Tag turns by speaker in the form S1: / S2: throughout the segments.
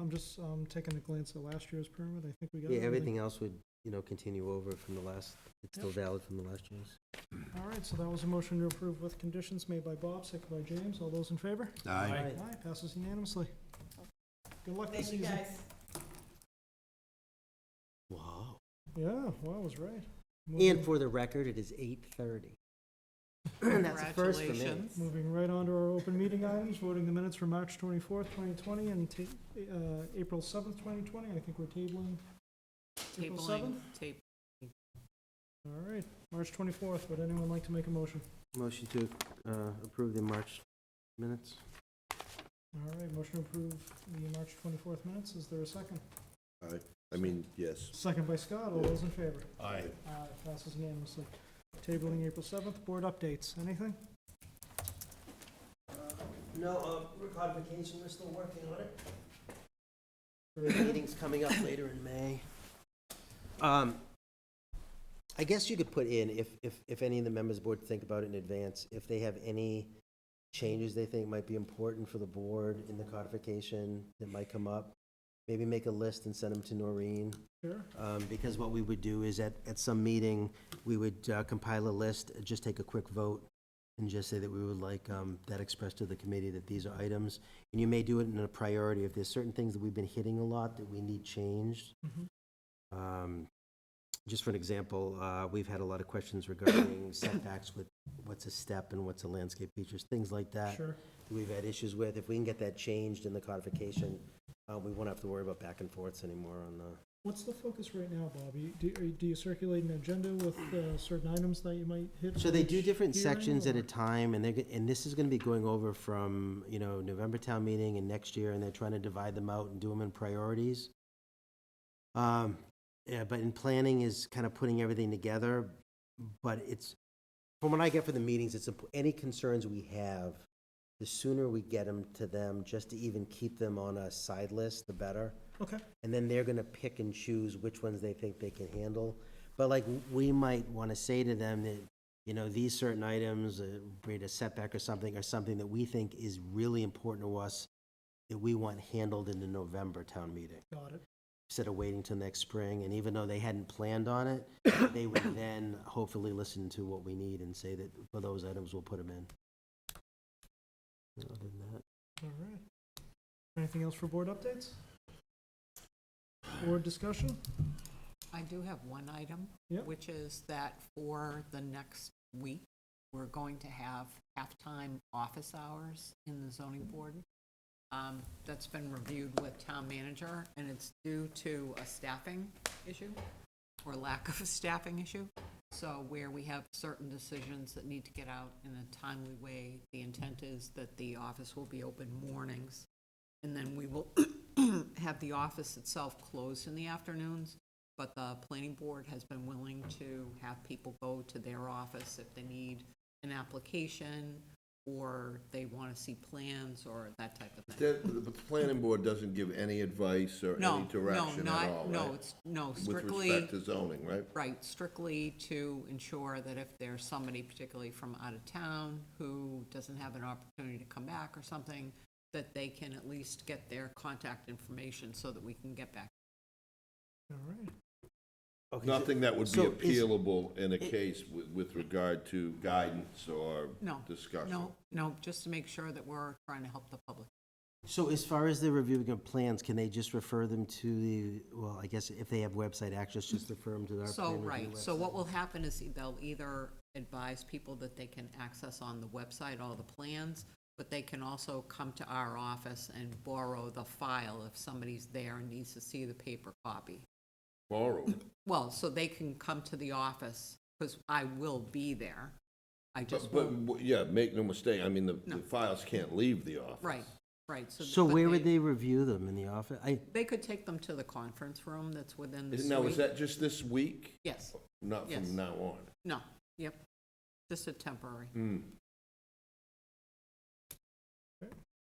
S1: I'm just, um, taking a glance at last year's permit, I think we got.
S2: Yeah, everything else would, you know, continue over from the last, it's still valid from the last year's.
S1: All right, so that was a motion to approve with conditions made by Bob, second by James, all those in favor?
S2: Aye.
S1: Aye, passes unanimously. Good luck this
S3: Thank you,
S1: season.
S3: guys.
S2: Wow.
S1: Yeah, wow, I was right.
S2: And
S1: Moving-
S2: for the record, it is eight thirty. That's a first for me.
S3: Congratulations.
S1: Moving right on to our open meeting items, voting the minutes for March twenty-fourth, twenty twenty, and ta- uh, April seventh, twenty twenty, I think we're tabling. April
S3: Tabling,
S1: 7th?
S3: tape.
S1: All right, March twenty-fourth, would anyone like to make a motion?
S2: Motion to uh, approve the March minutes.
S1: All right, motion to approve the March twenty-fourth minutes, is there a second?
S4: I mean, yes.
S1: Second by Scott, all those in favor?
S4: Aye.
S1: Aye, passes unanimously. Tabling April seventh, board updates, anything?
S2: No, uh, codification, we're still working on it. Meeting's coming up later in May. Um, I guess you could put in, if, if, if any of the members of the board think about it in advance, if they have any changes they think might be important for the board in the codification that might come up, maybe make a list and send them to Noreen.
S1: Sure.
S2: Um, because what we would do is at, at some meeting, we would uh, compile a list, just take a quick vote and just say that we would like, um, that expressed to the committee that these are items. And you may do it in a priority. If there's certain things that we've been hitting a lot that we need changed.
S1: Mhm.
S2: Um, just for an example, uh, we've had a lot of questions regarding setbacks with what's a step and what's a landscape features, things like that.
S1: Sure,
S2: We've had issues with, if we can get that changed in the codification, uh, we won't have to worry about back and forths anymore on the,
S1: what's the focus right now, Bob? You- Do, are you- do you circulate an agenda with uh, certain items that you might hit?
S2: So they
S1: for
S2: do
S1: each
S2: different
S1: hearing,
S2: sections at
S1: or-
S2: a time, and they're, g- and this is gonna be going over from, you know, November town meeting and next year, and they're trying to divide them out and do them in priorities. Um, yeah, but in planning is kind of putting everything together, but it's, from what I get from the meetings, it's, imp- any concerns we have, the sooner we get them to them, just to even keep them on a side list, the better.
S1: Okay,
S2: And then they're gonna pick and choose which ones they think they can handle. But like, we might wanna say to them that, you know, these certain items, uh, create a setback or something, or something that we think is really important to us, that we want handled in the November town meeting,
S1: got it.
S2: instead of waiting till next spring. And even though they hadn't planned on it, they would then hopefully listen to what we need and say that for those items, we'll put them in. Other than that.
S1: All right. Anything else for board updates? Board discussion?
S5: I do have one item,
S1: Yep.
S5: which is that for the next week, we're going to have halftime office hours in the zoning board. Um, That's been reviewed with town manager, and it's due to a staffing issue, or lack of a staffing issue. So where we have certain decisions that need to get out in a timely way, the intent is that the office will be open mornings, and then we will have the office itself closed in the afternoons, but the planning board has been willing to have people go to their office if they need an application or they want to see plans or that type of thing.
S4: The, the planning board doesn't give any advice or
S5: No,
S4: any
S5: no,
S4: direction at all,
S5: not, no,
S4: right?
S5: it's, no,
S4: With
S5: strictly.
S4: respect to zoning, right?
S5: Right, strictly to ensure that if there's somebody particularly from out of town who doesn't have an opportunity to come back or something, that they can at least get their contact information so that we can get back.
S1: All right.
S2: Okay, so-
S4: Nothing that would be
S2: So is-
S4: appealable in a case with, with regard to guidance or
S5: No.
S4: discussion.
S5: No, no, just to make sure that we're trying to help the public.
S2: So as far as the reviewing of plans, can they just refer them to the, well, I guess if they have website access, just refer them to our plan
S5: So,
S2: review
S5: right, so
S2: website?
S5: what will happen is e, they'll either advise people that they can access on the website all the plans, but they can also come to our office and borrow the file if somebody's there and needs to see the paper copy.
S4: Borrow.
S5: Well, so they can come to the office, because I will be there. I just
S4: But, but,
S5: won't,
S4: w- yeah, make no mistake, I mean, the,
S5: No.
S4: the files can't leave the office.
S5: right, right. th-
S2: So
S5: but
S2: where would they review them, in the office? I,
S5: They could take them to the conference room that's within the
S4: Is-
S5: suite.
S4: Now, is that just this week?
S5: Yes,
S4: Not
S5: Yes.
S4: from now on?
S5: no, yep, just a temporary.
S4: Hmm.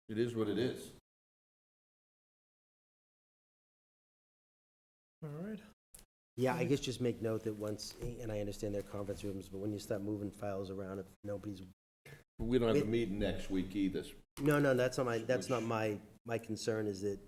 S4: It is what it is.
S1: All right.
S2: yeah,
S5: Mm.
S2: I guess just make note that once, and I understand their conference rooms, but when you start moving files around, if nobody's,
S4: We don't have
S2: With-
S4: a meeting next week either,
S2: no, no, that's not my, that's not my, my concern is that